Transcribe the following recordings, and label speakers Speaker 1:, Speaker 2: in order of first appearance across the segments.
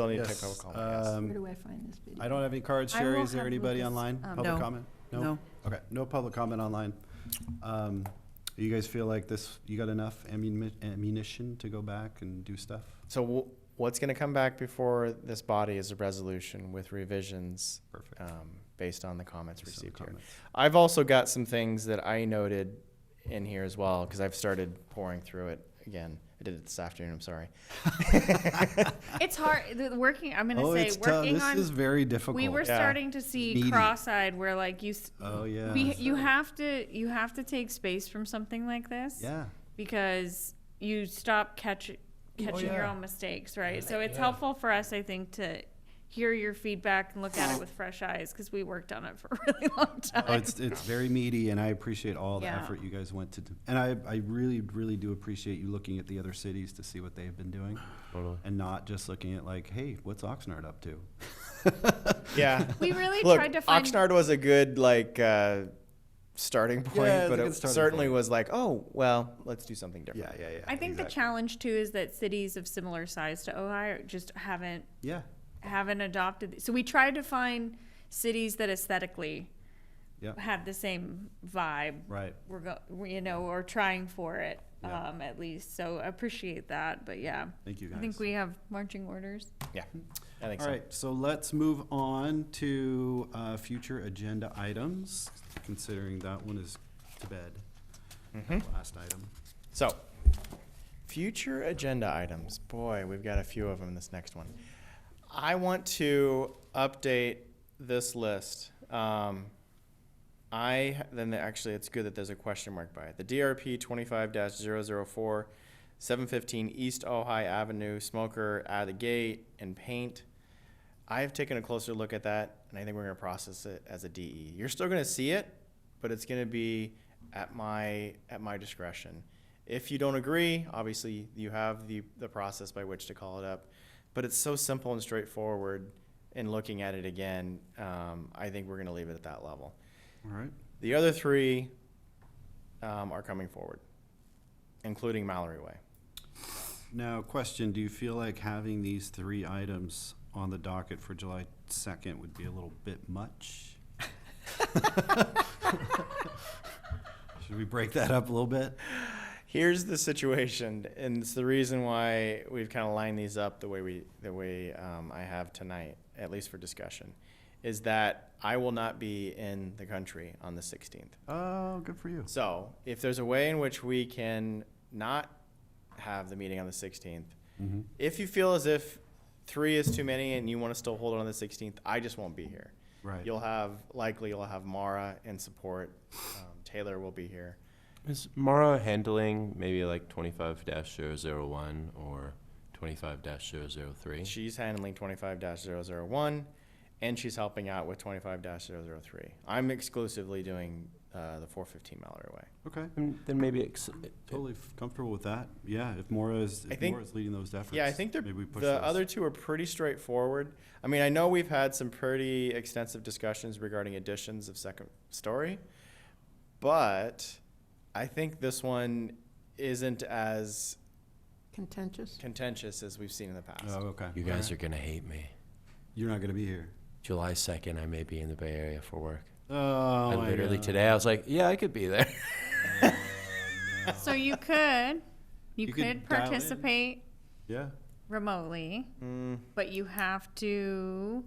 Speaker 1: Still need
Speaker 2: Yes,
Speaker 1: technical comment, yes.
Speaker 2: um,
Speaker 3: Where do I find this video?
Speaker 2: I don't have any cards.
Speaker 3: I will
Speaker 2: Sherry, is there
Speaker 3: have
Speaker 2: anybody
Speaker 3: Lucas,
Speaker 2: online?
Speaker 3: um,
Speaker 2: Public
Speaker 4: No.
Speaker 2: comment?
Speaker 4: No,
Speaker 2: Okay, no public comment online. Um, You guys feel like this, you got enough ammuni- ammunition to go back and do stuff?
Speaker 1: So w- what's going to come back before this body is a resolution with revisions
Speaker 2: Perfect.
Speaker 1: um, based on the comments
Speaker 2: Based on the
Speaker 1: received here.
Speaker 2: Uh, comments.
Speaker 1: I've also got some things that I noted in here as well because I've started pouring through it again. I did it this afternoon. I'm sorry.
Speaker 5: It's hard. The, working. I'm gonna
Speaker 2: Oh,
Speaker 5: say
Speaker 2: it's tough.
Speaker 5: working
Speaker 2: This
Speaker 5: on.
Speaker 2: is very difficult.
Speaker 5: we were
Speaker 1: Yeah.
Speaker 5: starting to see
Speaker 2: Meaty.
Speaker 5: cross-eyed, where like you, s-
Speaker 2: Oh, yeah.
Speaker 5: we, you have to, you have to take space from something like this.
Speaker 2: Yeah,
Speaker 5: Because you stop catch, catching your
Speaker 2: Oh, yeah.
Speaker 5: own mistakes, right? So it's helpful for us, I think, to hear your feedback and look at it with fresh eyes because we worked on it for a really long time.
Speaker 2: Oh, it's, it's very meaty, and I appreciate all the
Speaker 5: Yeah.
Speaker 2: effort you guys went to do. And I, I really, really do appreciate you looking at the other cities to see what they've been doing.
Speaker 6: Totally.
Speaker 2: And not just looking at like, hey, what's Oxnard up to?
Speaker 1: Yeah.
Speaker 5: we really
Speaker 1: Look,
Speaker 5: tried to find.
Speaker 1: Oxnard was a good like uh, starting point,
Speaker 2: Yeah, it's a
Speaker 1: but
Speaker 2: good
Speaker 1: it
Speaker 2: starting
Speaker 1: certainly
Speaker 2: point.
Speaker 1: was like, oh well, let's do something different.
Speaker 2: Yeah, yeah, yeah.
Speaker 5: I think the
Speaker 2: exactly.
Speaker 5: challenge too is that cities of similar size to Ohio just haven't
Speaker 2: Yeah,
Speaker 5: haven't adopted. So we tried to find cities that aesthetically
Speaker 2: Yep.
Speaker 5: have the same vibe.
Speaker 2: right.
Speaker 5: We're go, we- you know, or trying for it
Speaker 2: Yeah.
Speaker 5: um, at least. So I appreciate that, but yeah,
Speaker 2: Thank you guys.
Speaker 5: I think we have marching orders.
Speaker 1: Yeah, I think
Speaker 2: All
Speaker 1: so.
Speaker 2: right, so let's move on to uh, future agenda items, considering that one is to bed. That Last item.
Speaker 1: So, future agenda items. Boy, we've got a few of them in this next one. I want to update this list. Um, I then the- actually, it's good that there's a question mark by it. The DRP 25-004, 715 East Ojai Avenue, smoker out of the gate and paint. I have taken a closer look at that, and I think we're going to process it as a DE. You're still going to see it, but it's going to be at my at my discretion. If you don't agree, obviously you have the the process by which to call it up. But it's so simple and straightforward. And looking at it again, um, I think we're going to leave it at that level.
Speaker 2: All right,
Speaker 1: The other three um, are coming forward, including Mallory Way.
Speaker 2: now, question, do you feel like having these three items on the docket for July second would be a little bit much? Should we break that up a little bit?
Speaker 1: Here's the situation, and it's the reason why we've kind of lined these up the way we the way um, I have tonight, at least for discussion, is that I will not be in the country on the 16th.
Speaker 2: Oh, good for you.
Speaker 1: So, if there's a way in which we can not have the meeting on the 16th, if you feel as if three is too many and you want to still hold it on the 16th, I just won't be here.
Speaker 2: Right.
Speaker 1: You'll have likely you'll have Mara in support. Um, Taylor will be here.
Speaker 6: Is Mara handling maybe like 25 001 or 25 003?
Speaker 1: She's handling twenty-five 1 and she's helping out with twenty-five 3 I'm exclusively doing, uh, the four fifteen Mallory Way.
Speaker 2: Okay,
Speaker 6: Mm, Then maybe ex- uh,
Speaker 2: totally f- comfortable with that. Yeah, if Mora is,
Speaker 1: I
Speaker 2: if
Speaker 1: think-
Speaker 2: Mora is leading those efforts.
Speaker 1: Yeah, I think the,
Speaker 2: maybe we push
Speaker 1: the
Speaker 2: those.
Speaker 1: other two are pretty straightforward. I mean, I know we've had some pretty extensive discussions regarding additions of second story, but I think this one isn't as
Speaker 4: contentious.
Speaker 1: contentious as we've seen in the past.
Speaker 2: Oh, okay.
Speaker 6: you guys are going to hate me.
Speaker 2: You're not gonna be here.
Speaker 6: July 2nd, I may be in the Bay Area for work.
Speaker 2: Oh,
Speaker 6: I
Speaker 2: my
Speaker 6: literally
Speaker 2: God.
Speaker 6: today, I was like, yeah, I could be there.
Speaker 5: So you could, you,
Speaker 2: You could
Speaker 5: could
Speaker 2: dial in.
Speaker 5: participate
Speaker 2: Yeah.
Speaker 5: remotely,
Speaker 1: Mm,
Speaker 5: but you have to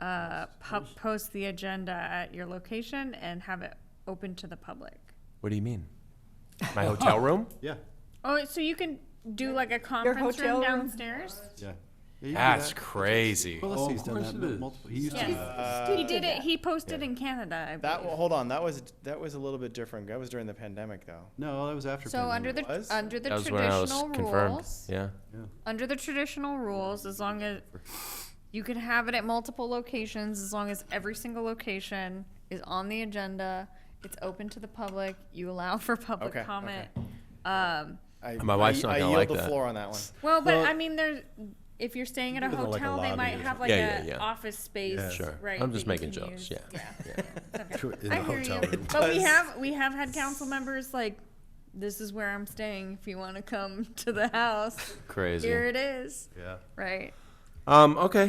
Speaker 5: uh, pub- post the agenda at your location and have it open to the public.
Speaker 6: what do you mean? My hotel room?
Speaker 2: Yeah.
Speaker 5: Oh, so you can do like a conference
Speaker 4: hotel
Speaker 5: room
Speaker 4: room?
Speaker 5: downstairs?
Speaker 2: Yeah.
Speaker 6: That's crazy.
Speaker 2: Well, let's see, he's done
Speaker 7: course
Speaker 2: that
Speaker 7: it
Speaker 2: mul-
Speaker 7: is.
Speaker 2: multiple. He used
Speaker 5: Yeah.
Speaker 2: to. Uh,
Speaker 5: he did it. He posted in Canada. I
Speaker 1: that,
Speaker 5: believe.
Speaker 1: hold on, that was, that was a little bit different. That was during the pandemic though.
Speaker 2: No, that was after.
Speaker 5: So under
Speaker 2: pandemic.
Speaker 5: the
Speaker 1: Was?
Speaker 5: under the
Speaker 6: That was when I was
Speaker 5: traditional
Speaker 6: confirmed.
Speaker 5: rules,
Speaker 6: Yeah.
Speaker 5: under the traditional rules, as long as you can have it at multiple locations, as long as every single location is on the agenda, it's open to the public. You allow for public
Speaker 1: Okay,
Speaker 5: comment. Um,
Speaker 1: I,
Speaker 6: My wife's
Speaker 1: I,
Speaker 6: not
Speaker 1: I
Speaker 6: gonna
Speaker 1: yield
Speaker 6: like
Speaker 1: the
Speaker 6: that.
Speaker 1: floor on that one.
Speaker 5: well, but
Speaker 2: Well-
Speaker 5: I mean, there's if you're staying at a
Speaker 7: Give it, like, a
Speaker 5: hotel, they
Speaker 7: lobby
Speaker 5: might
Speaker 7: or
Speaker 5: have like
Speaker 6: Yeah,
Speaker 5: a
Speaker 6: yeah, yeah.
Speaker 5: office space,
Speaker 7: Yeah.
Speaker 6: Sure.
Speaker 5: right?
Speaker 6: I'm just
Speaker 5: that you
Speaker 6: making
Speaker 5: can
Speaker 6: jokes.
Speaker 5: use.
Speaker 6: Yeah.
Speaker 7: in
Speaker 5: I
Speaker 7: a
Speaker 5: hear
Speaker 7: hotel
Speaker 5: you.
Speaker 7: room.
Speaker 5: But we
Speaker 1: does.
Speaker 5: have we have had council members like, this is where I'm staying. If you want to come to the house,
Speaker 6: Crazy.
Speaker 5: here it is.
Speaker 2: Yeah.
Speaker 5: Right.
Speaker 6: Um, okay.